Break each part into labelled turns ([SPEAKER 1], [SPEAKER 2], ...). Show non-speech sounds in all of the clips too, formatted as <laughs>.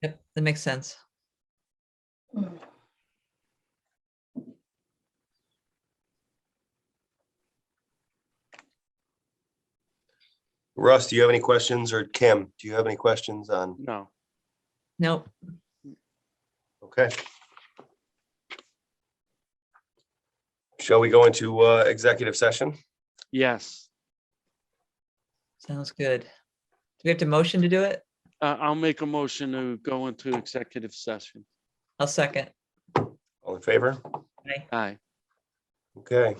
[SPEAKER 1] That makes sense.
[SPEAKER 2] Mm.
[SPEAKER 3] Russ, do you have any questions? Or Kim, do you have any questions on?
[SPEAKER 4] No,
[SPEAKER 1] Nope.
[SPEAKER 3] Okay. Shall we go into uh, executive session?
[SPEAKER 4] yes.
[SPEAKER 1] Sounds good. Do we have to motion to do it?
[SPEAKER 4] Uh, I'll make a motion to go into executive session.
[SPEAKER 1] I'll second.
[SPEAKER 3] All in favor?
[SPEAKER 4] Aye.
[SPEAKER 3] Okay.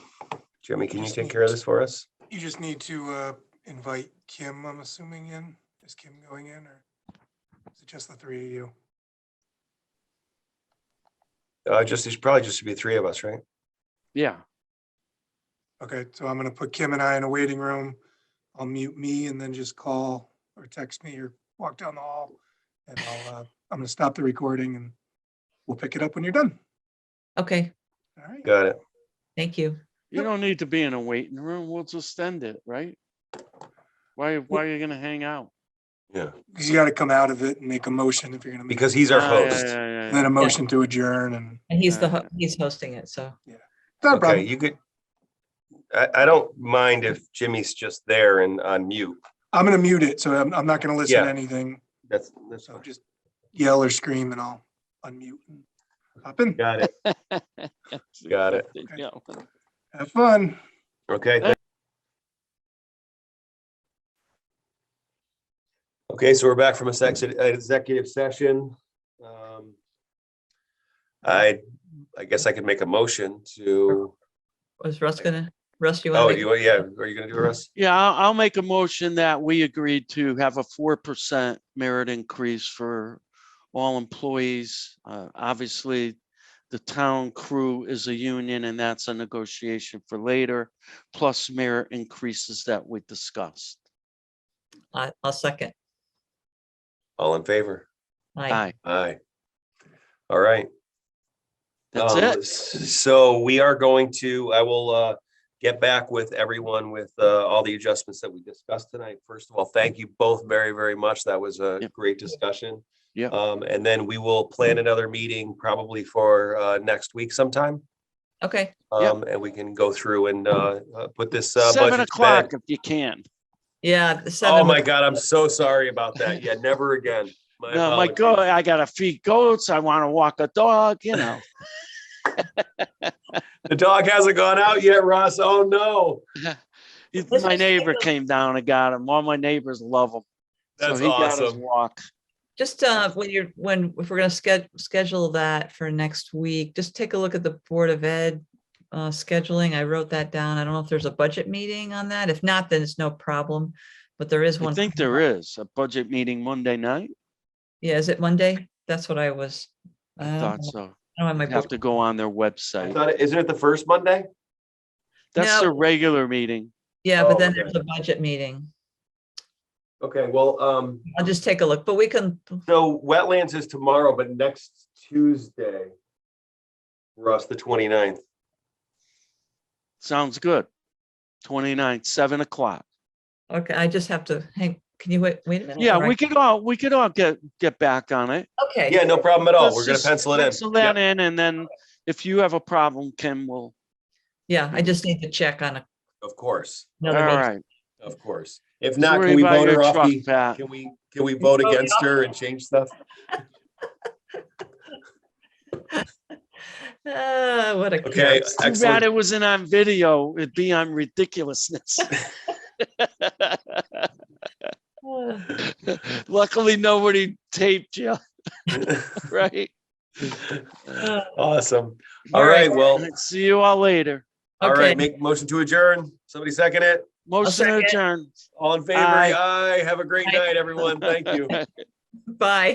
[SPEAKER 3] Jimmy, can you take care of this for us?
[SPEAKER 5] You just need to uh, invite Kim, I'm assuming, in. Is Kim going in or is it just the three of you?
[SPEAKER 3] Uh, just, there's probably just to be three of us, right?
[SPEAKER 4] Yeah,
[SPEAKER 5] Okay, so I'm going to put Kim and I in a waiting room. I'll mute me and then just call or text me or walk down the hall. And I'll, uh, I'm going to stop the recording and we'll pick it up when you're done.
[SPEAKER 1] Okay,
[SPEAKER 5] All right.
[SPEAKER 3] Got it.
[SPEAKER 1] thank you.
[SPEAKER 4] you don't need to be in a waiting room. We'll just end it, right? Why, why are you gonna hang out?
[SPEAKER 3] Yeah.
[SPEAKER 5] Because you got to come out of it and make a motion if you're going to. make
[SPEAKER 3] Because he's our
[SPEAKER 4] Ah, yeah,
[SPEAKER 3] host.
[SPEAKER 4] yeah, yeah,
[SPEAKER 5] And Then
[SPEAKER 4] yeah.
[SPEAKER 5] a motion to adjourn and.
[SPEAKER 1] And he's the,
[SPEAKER 4] Uh,
[SPEAKER 1] ho- he's hosting it, so.
[SPEAKER 5] Not a
[SPEAKER 3] Okay,
[SPEAKER 5] problem.
[SPEAKER 3] you could. I, I don't mind if Jimmy's just there and on mute.
[SPEAKER 5] I'm going to mute it, so I'm, I'm not going to listen
[SPEAKER 3] Yeah.
[SPEAKER 5] to anything.
[SPEAKER 3] That's, that's,
[SPEAKER 5] So just yell or scream and I'll unmute and hop in.
[SPEAKER 3] got it. Got
[SPEAKER 4] <laughs>
[SPEAKER 3] it.
[SPEAKER 4] Yeah.
[SPEAKER 5] Have fun.
[SPEAKER 3] Okay. thank- Okay, so we're back from a sex, executive session. Um, I, I guess I could make a motion to,
[SPEAKER 1] Was Russ gonna, Russ, you
[SPEAKER 3] oh,
[SPEAKER 1] want
[SPEAKER 3] you,
[SPEAKER 1] to?
[SPEAKER 3] yeah, are you gonna do it, Russ?
[SPEAKER 4] Yeah, I'll, I'll make a motion that we agreed to have a four percent merit increase for all employees. Uh, obviously, the town crew is a union and that's a negotiation for later, plus merit increases that we discussed.
[SPEAKER 1] I, I'll second.
[SPEAKER 3] All in favor?
[SPEAKER 1] Aye.
[SPEAKER 4] Aye,
[SPEAKER 3] Aye. All right.
[SPEAKER 4] that's
[SPEAKER 3] Um,
[SPEAKER 4] it.
[SPEAKER 3] s- So we are going to, I will uh, get back with everyone with uh, all the adjustments that we discussed tonight. First of all, thank you both very, very much. That was a
[SPEAKER 4] Yep.
[SPEAKER 3] great discussion.
[SPEAKER 4] Yep.
[SPEAKER 3] Um, And then we will plan another meeting probably for uh, next week sometime.
[SPEAKER 1] Okay,
[SPEAKER 4] Yep.
[SPEAKER 3] Um, And we can go through and uh, uh, put this. uh,
[SPEAKER 4] Seven
[SPEAKER 3] budget to bed.
[SPEAKER 4] o'clock if you can.
[SPEAKER 1] yeah. the
[SPEAKER 3] Oh,
[SPEAKER 1] seven
[SPEAKER 3] my
[SPEAKER 1] would-
[SPEAKER 3] God, I'm so sorry about that. Yeah, never again.
[SPEAKER 4] No, my
[SPEAKER 3] apologies.
[SPEAKER 4] God, I gotta feed goats. I wanna walk a dog,
[SPEAKER 3] <laughs>
[SPEAKER 4] you know.
[SPEAKER 3] The dog hasn't gone out yet, Ross. Oh, no.
[SPEAKER 4] If
[SPEAKER 1] Let's just
[SPEAKER 4] My
[SPEAKER 1] take
[SPEAKER 4] neighbor
[SPEAKER 1] a-
[SPEAKER 4] came down and got him. All my neighbors love him. So
[SPEAKER 3] That's
[SPEAKER 4] he got his
[SPEAKER 3] awesome.
[SPEAKER 4] Walk.
[SPEAKER 1] Just, uh, when you're, when, if we're gonna sched- schedule that for next week, just take a look at the Board of Ed uh, scheduling. I wrote that down. I don't know if there's a budget meeting on that. If not, then it's no problem. But there is
[SPEAKER 4] I
[SPEAKER 1] one.
[SPEAKER 4] think there is a budget meeting Monday night.
[SPEAKER 1] Yeah, is it Monday? That's what I was.
[SPEAKER 4] I
[SPEAKER 1] uh,
[SPEAKER 4] thought so.
[SPEAKER 1] I don't have my
[SPEAKER 4] You have
[SPEAKER 1] book.
[SPEAKER 4] to go on their
[SPEAKER 3] I
[SPEAKER 4] website.
[SPEAKER 3] thought, it- isn't it the first Monday?
[SPEAKER 4] That's
[SPEAKER 1] No.
[SPEAKER 4] their regular meeting.
[SPEAKER 1] Yeah, but
[SPEAKER 3] Oh,
[SPEAKER 1] then
[SPEAKER 3] okay.
[SPEAKER 1] there's a budget meeting.
[SPEAKER 3] Okay, well, um,
[SPEAKER 1] I'll just take a look, but we can,
[SPEAKER 3] so wetlands is tomorrow, but next Tuesday. Russ, the 29th.
[SPEAKER 4] Sounds good. 29, seven o'clock.
[SPEAKER 1] okay, I just have to, hang. can you wait, wait a minute?
[SPEAKER 4] Yeah,
[SPEAKER 1] Or I-
[SPEAKER 4] we could all, we could all get, get back on it.
[SPEAKER 1] Okay.
[SPEAKER 3] Yeah, no problem at all.
[SPEAKER 4] Let's
[SPEAKER 3] We're gonna
[SPEAKER 4] just
[SPEAKER 3] pencil it
[SPEAKER 4] Pencil
[SPEAKER 3] in.
[SPEAKER 4] that
[SPEAKER 3] Yep.
[SPEAKER 4] in and then if you have a problem, Kim will,
[SPEAKER 1] Yeah, I just need to check on a-
[SPEAKER 3] Of course,
[SPEAKER 4] all
[SPEAKER 1] another. website.
[SPEAKER 4] right.
[SPEAKER 3] of course. If
[SPEAKER 4] Don't
[SPEAKER 3] not,
[SPEAKER 4] worry
[SPEAKER 3] can we
[SPEAKER 4] about
[SPEAKER 3] vote
[SPEAKER 4] your
[SPEAKER 3] her off?
[SPEAKER 4] truck,
[SPEAKER 3] the-
[SPEAKER 4] Pat.
[SPEAKER 3] Can we, can we vote
[SPEAKER 1] vote
[SPEAKER 3] against her and change stuff? <laughs>
[SPEAKER 1] Ah, what a.
[SPEAKER 3] Okay,
[SPEAKER 1] curse.
[SPEAKER 4] Too bad
[SPEAKER 3] excellent.
[SPEAKER 4] it wasn't on video. It'd be on ridiculousness. <laughs>
[SPEAKER 1] Ah,
[SPEAKER 4] Luckily, nobody taped you, <laughs> right?
[SPEAKER 1] ah,
[SPEAKER 3] Awesome.
[SPEAKER 1] All
[SPEAKER 3] All
[SPEAKER 1] right.
[SPEAKER 3] right, well,
[SPEAKER 4] See you all later.
[SPEAKER 3] all
[SPEAKER 1] Okay.
[SPEAKER 3] right, make motion to adjourn. Somebody second it.
[SPEAKER 4] Motion to
[SPEAKER 1] second.
[SPEAKER 4] adjourn.
[SPEAKER 3] All in favor?
[SPEAKER 4] Aye.
[SPEAKER 3] Aye. Have a great
[SPEAKER 1] Aye.
[SPEAKER 4] <laughs>
[SPEAKER 3] night, everyone. Thank you.
[SPEAKER 1] Bye.